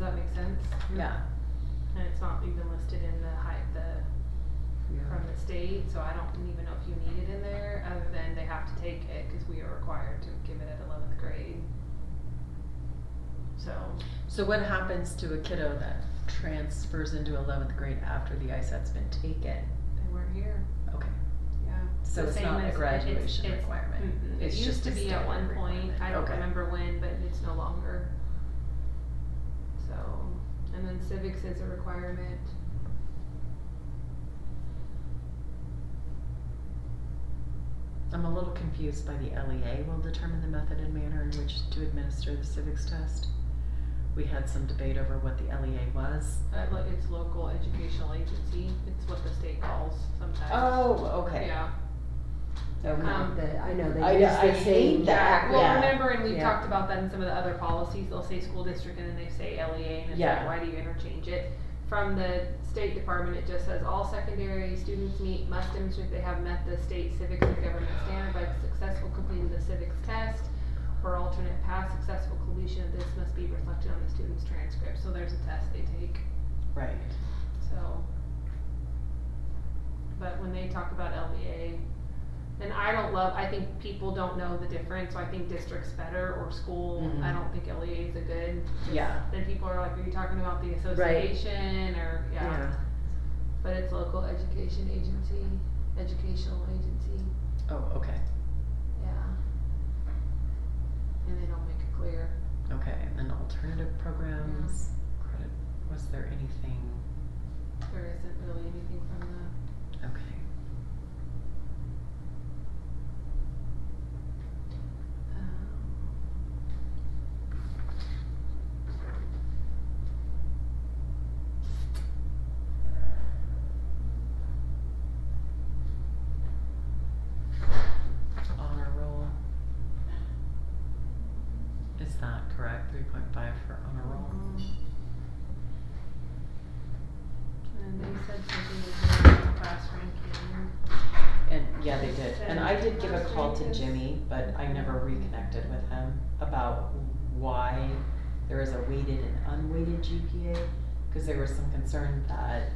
that make sense? Yeah. And it's not even listed in the high, the, from the state, so I don't even know if you need it in there, other than they have to take it, cause we are required to give it at eleventh grade. So, So what happens to a kiddo that transfers into eleventh grade after the ISAT's been taken? they weren't here, Okay, yeah. so The it's same not as- a it's- graduation it's- requirement. mm-mm. It It's used just to a be at one standard point, I requirement. don't Okay. remember when, but it's no longer. So, and then civics is a requirement. I'm a little confused by the LEA will determine the method and manner in which to administer the civics test. We had some debate over what the LEA was. Uh, like it's local educational agency, it's what the state calls sometimes. Oh, Yeah. So Um, not the, I know I- they use I the hate same. that. Well, Yeah. remember, and we've Yeah. talked about that in some of the other policies, they'll say school district and then they say LEA and it's like, Yeah. why do you interchange it? From the State Department, it just says all secondary students meet, must demonstrate they have met the state civics and government standard by successful completing the civics test. Or alternate pass, successful completion of this must be reflected on the student's transcript, so there's a test they take. Right. So. But when they talk about LBA, and I don't love, I think people don't know the difference, so I think district's better or school, I Mhm. don't think LEA is a good. Yeah. Then people are like, are you talking about the association or, yeah, but it's local education agency, educational agency, Oh, okay, yeah. And they don't make it clear. okay, and then alternative programs, Mm-hmm. credit, was there anything, There isn't really anything from the, okay. um, honor roll. Is that correct? Three point five for honor roll? And they said something about the class ranking. And, yeah, they did, and I did give a call to Yes. Jimmy, but I never reconnected with him about why there is a weighted and unweighted GPA, cause there was some concern that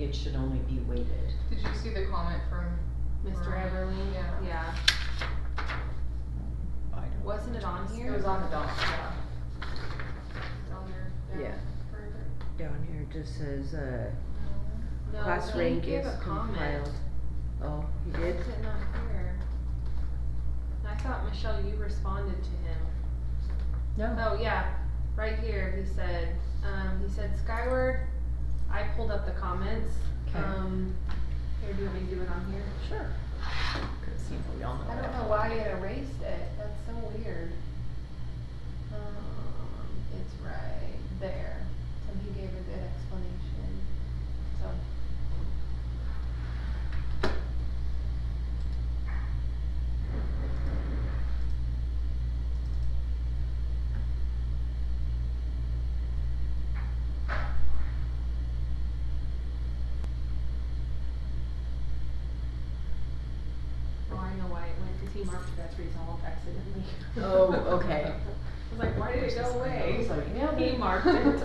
it should only be weighted. Did you see the comment from? Mr. Everly, Yeah. yeah, I don't. wasn't it on here? It was on the doc, yeah. It's on there. Yeah. Further. Down here it just says, uh, No, class he rank gave is a comment. compiled. Oh, he Why did? is it not here? I thought, Michelle, you responded to him. No, Oh, yeah, right here, he said, um, he said Skyward, I pulled up the comments. 'Kay. Um, here, do you want me to do it on here? sure. Cause you know, we all know. I what don't know why it erased it, that's so weird. Um, it's right there, so he gave a good explanation, so. Oh, I know why it went, cause he marked that's resolved accidentally. Oh, okay. I was like, why did it go away? I was like, yeah, He but- marked it.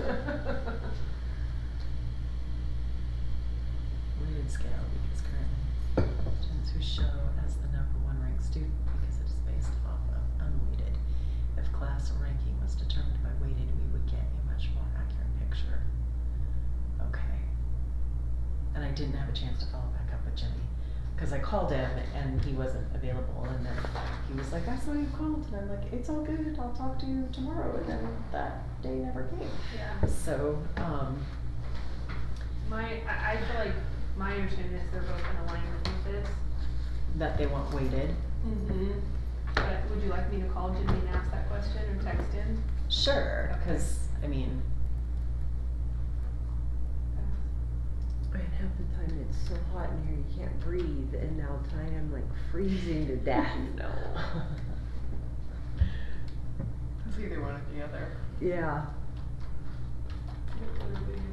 Weighted scale because currently students who show as the number one ranked student because it is based off of unweighted. If class ranking was determined by weighted, we would get a much more accurate picture. Okay. And I didn't have a chance to follow back up with Jimmy, cause I called him and he wasn't available and then he was like, I saw you called and I'm like, it's all good, I'll talk to you tomorrow and then that day never came. Yeah. So, um, My, I, I feel like my understanding is they're both in alignment with this. that they want weighted. Mm-hmm. But would you like me to call Jimmy and ask that question or text him? Sure, Okay. because, I mean, And half the time it's so hot in here, you can't breathe, and now tonight I'm like freezing to death. no. It's either one or the other. Yeah. It would be